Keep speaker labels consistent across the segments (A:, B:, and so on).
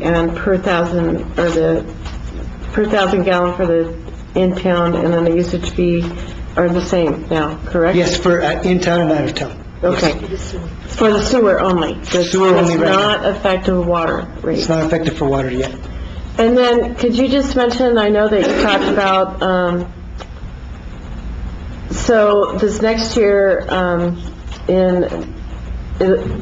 A: and per thousand, or the, per thousand gallon for the in-town, and then the usage fee are the same now, correct?
B: Yes, for uh, in-town and out-of-town.
A: Okay. For the sewer only? That's-
B: Sewer only right now.
A: That's not effective water
B: It's
A: rate?
B: not effective for water yet.
A: And then, could you just mention, I know that you talked about, um, so this next year, um, in,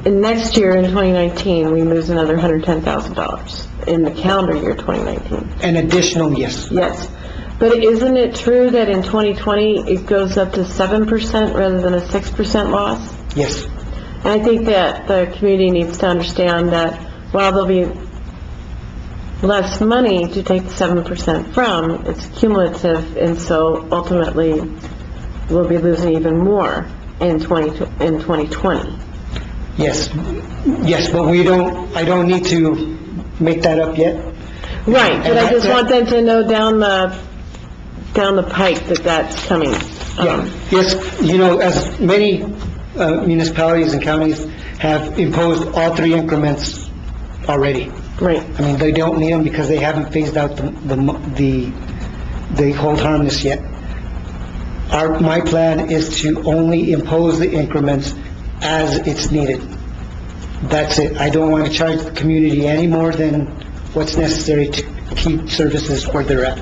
A: in next year, in 2019, we lose another $110,000 in the calendar year 2019.
B: An additional, yes.
A: Yes. But isn't it true that in 2020, it goes up to 7% rather than a 6% loss?
B: Yes.
A: And I think that the community needs to understand that while there'll be less money to take the seven percent from, it's cumulative, and so ultimately, we'll be losing even more in twenty, in twenty twenty.
B: Yes, yes, but we don't, I don't need to make that up yet.
A: Right, but I just
B: And I-
A: want them to know down the, down the pike that that's coming.
B: Yeah,
A: Um,
B: yes, you know, as many uh, municipalities and counties have imposed all three increments already.
A: Right,
B: I mean, they don't need them because they haven't phased out the, the mo- the, they hold harmless yet. Our, my plan is to only impose the increments as it's needed. That's it. I don't want to charge the community any more than what's necessary to keep services where they're at.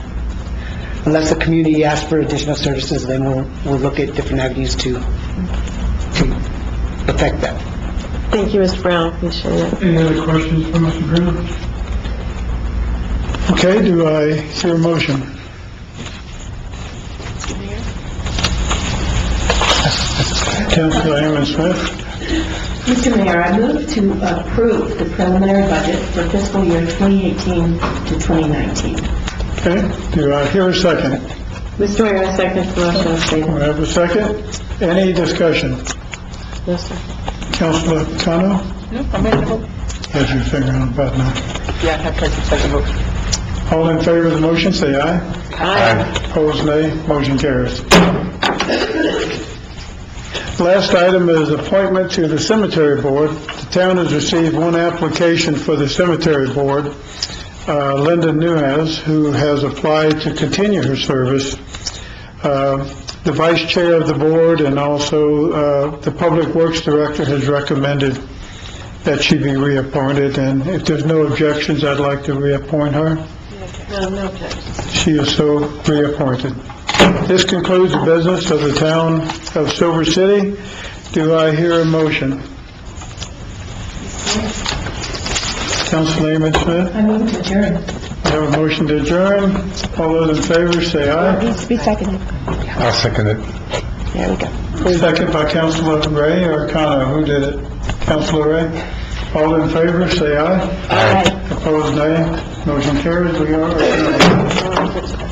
B: Unless the community asks for additional services, then we'll, we'll look at different avenues to, to affect that.
A: thank you, Mr. Brown, appreciate it.
C: Any other questions for Mr. Brown? Okay, do I hear a motion? Council Aaron Smith,
D: Mr. Mayor, I move to approve the preliminary budget for fiscal year 2018 to 2019.
C: okay, do I hear a second?
A: Mr. Mayor, I second the motion,
C: Do
A: please.
C: I have a second? Any discussion?
A: Yes, sir.
C: Councilor Kano? Has your finger on the button.
B: Yeah, I have second vote.
C: All in favor of the motion, say aye.
A: Aye.
C: Opposed, nay. Motion carries. Last item is appointment to the cemetery board. The town has received one application for the cemetery board, uh, Linda Nuez, who has applied to continue her service. Uh, The vice chair of the board and also uh, the public works director has recommended that she be reappointed, and if there's no objections, I'd like to reappoint her.
A: No, no objection.
C: She is so reappointed. This concludes the business of the town of Silver City. Do I hear a motion? Councilman Smith,
D: I move to adjourn.
C: I have a motion to adjourn. All those in favor, say aye.
D: Be seconded.
E: I'll second it.
D: There we go.
C: Second by Councilor Ray or Connor, who did it? Councilor Ray? All in favor, say aye.
D: Aye.
C: Opposed, nay. Motion carries. We are adjourned.